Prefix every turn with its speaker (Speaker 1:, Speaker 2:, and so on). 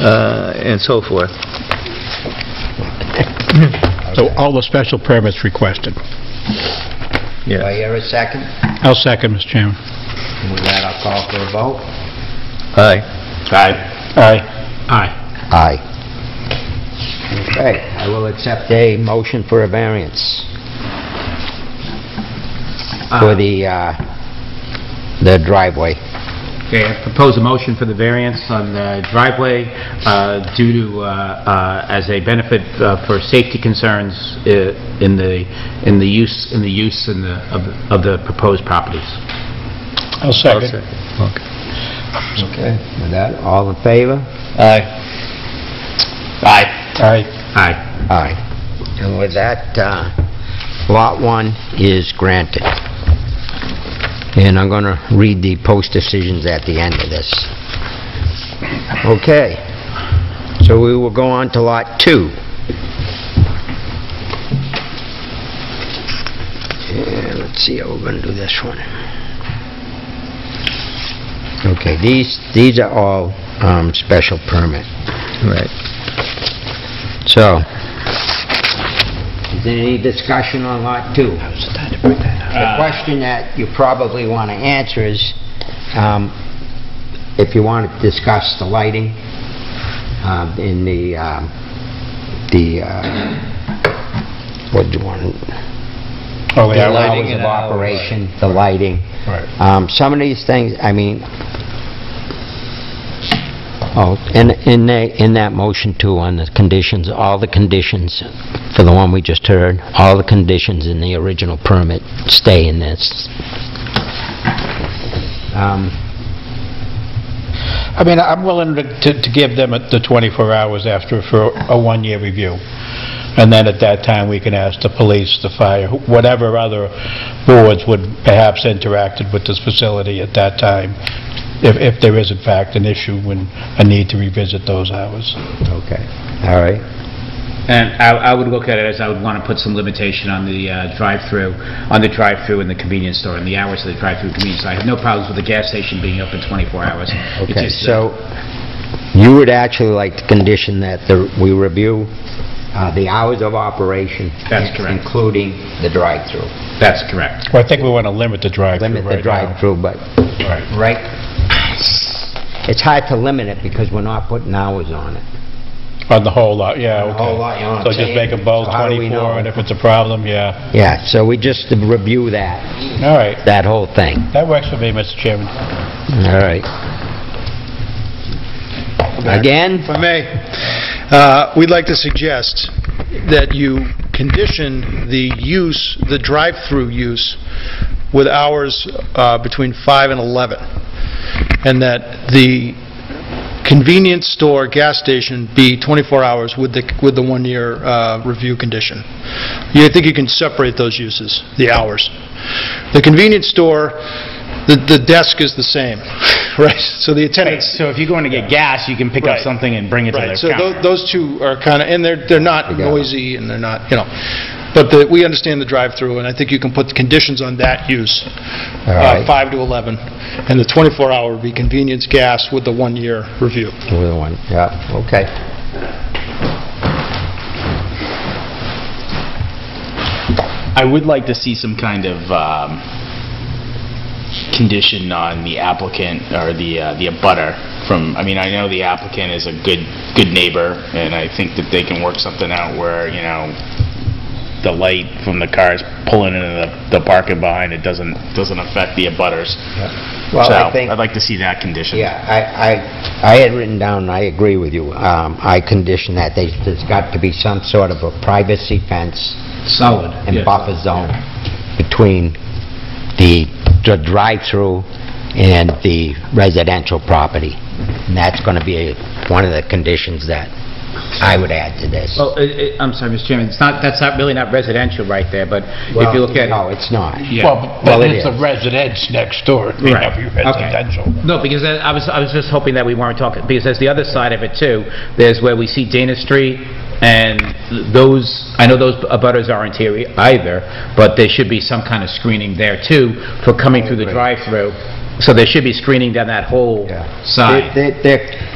Speaker 1: uh, and so forth.
Speaker 2: So all the special permits requested.
Speaker 3: Do I
Speaker 1: Yeah.
Speaker 3: hear a second?
Speaker 2: I'll second, Mr. Chairman.
Speaker 3: And With that, I'll call for a vote.
Speaker 1: Aye.
Speaker 3: Aye.
Speaker 2: Aye.
Speaker 4: Aye.
Speaker 3: Aye. Okay, I will accept a motion for a variance for the, uh, the driveway.
Speaker 4: Okay, I propose a motion for the variance on the driveway uh, due to, uh, uh, as a benefit uh, for safety concerns uh, in the, in the use, in the use in the, of the- of the proposed properties.
Speaker 2: I'll second.
Speaker 1: Okay.
Speaker 3: Okay. With that, all in favor?
Speaker 1: Aye.
Speaker 4: Aye.
Speaker 2: Aye.
Speaker 4: Aye.
Speaker 3: Aye. And with that, uh, Lot 1 is granted. And I'm going to read the post decisions at the end of this. Okay. So we will go on to Lot 2. Yeah, let's see how we're going to do this one. Okay, these, these are all um, special permit.
Speaker 1: Right.
Speaker 3: So, is there any discussion on Lot 2?
Speaker 2: Uh,
Speaker 3: The question that you probably want to answer is, um, if you want to discuss the lighting um, in the, um, the, uh, what do you want?
Speaker 2: Oh, wait,
Speaker 3: The
Speaker 2: I'll-
Speaker 1: lighting
Speaker 3: hours
Speaker 1: and
Speaker 3: of
Speaker 1: hours.
Speaker 3: operation, the lighting.
Speaker 2: Right.
Speaker 3: Um, Some of these things, I mean, oh, and in that, in that motion too, on the conditions, all the conditions for the one we just heard, all the conditions in the original permit stay in this. Um,
Speaker 2: I mean, I'm willing to- to to give them the 24 hours after for a one-year review. And then at that time, we can ask the police, the fire, wh- whatever other boards would perhaps interacted with this facility at that time, if if there is in fact an issue and a need to revisit those hours.
Speaker 3: Okay, all right.
Speaker 4: And I I would look at it as I would want to put some limitation on the uh, drive-through, on the drive-through and the convenience store, and the hours of the drive-through convenience. store. I have no problems with the gas station being open 24 hours. It's
Speaker 3: Okay,
Speaker 4: just, uh,
Speaker 3: so you would actually like to condition that the- we review uh, the hours of operation.
Speaker 4: That's correct.
Speaker 3: Including the drive-through.
Speaker 4: That's correct.
Speaker 2: Well, I think we want to limit the drive-through right
Speaker 3: Limit
Speaker 2: now.
Speaker 3: the drive-through, but, right, it's hard to limit it because we're not putting hours on it.
Speaker 2: On the whole lot, yeah, okay.
Speaker 3: The whole lot, you know what
Speaker 2: So
Speaker 3: I'm
Speaker 2: just make
Speaker 3: saying?
Speaker 2: a bold
Speaker 3: So how do we
Speaker 2: 24,
Speaker 3: know?
Speaker 2: and if it's a problem, yeah.
Speaker 3: Yeah, so we just review that,
Speaker 2: All right,
Speaker 3: that whole thing.
Speaker 2: that works for me, Mr. Chairman.
Speaker 3: All right. Again?
Speaker 5: If I may, uh, we'd like to suggest that you condition the use, the drive-through use, with hours uh, between 5 and 11, and that the convenience store, gas station be 24 hours with the, with the one-year uh, review condition. You think you can separate those uses, the hours? The convenience store, the the desk is the same, right? So the attendants...
Speaker 4: So if you're going to get gas, you can pick
Speaker 5: up Right.
Speaker 4: something and bring it
Speaker 5: Right, so tho- those two are kind of, and they're, they're not
Speaker 3: got it.
Speaker 5: noisy, and they're not, you know, but the- we understand the drive-through, and I think you can put the conditions on that use,
Speaker 3: All
Speaker 5: uh,
Speaker 3: right.
Speaker 5: 5 to 11, and the 24-hour would be convenience gas with the one-year review.
Speaker 3: We're the one, yeah, okay.
Speaker 6: I would like to see some kind of um, condition on the applicant or the, uh, the abutter from, I mean, I know the applicant is a good, good neighbor, and I think that they can work something out where, you know, the light from the cars pulling into the- the parking behind it doesn't, doesn't affect the abutters.
Speaker 3: Well, I
Speaker 6: So,
Speaker 3: think,
Speaker 6: I'd like to see that condition.
Speaker 3: yeah, I, I, I had written down, I agree with you, um, I condition that, There's- there's got to be some sort of a privacy fence
Speaker 4: Solid.
Speaker 3: and buffer zone between the the drive-through and the residential property. And that's going to be one of the conditions that I would add to this.
Speaker 4: Well, i- i- I'm sorry, Mr. Chairman, it's not, that's not, really not residential right there, but if you look at...
Speaker 3: No, it's not.
Speaker 4: uh, Yeah.
Speaker 2: Well, but
Speaker 3: Well, it
Speaker 2: it's
Speaker 3: is.
Speaker 2: the residence next door, it may
Speaker 4: Right.
Speaker 2: not be
Speaker 4: Okay.
Speaker 2: residential.
Speaker 4: No, because that- I was, I was just hoping that we weren't talking, because there's the other side of it too. There's where we see Dana Street, and those, I know those abutters aren't here e- either, but there should be some kind of screening there too for coming through the drive-through. So there should be screening down that whole
Speaker 3: Yeah.
Speaker 4: side.
Speaker 3: They- they- They're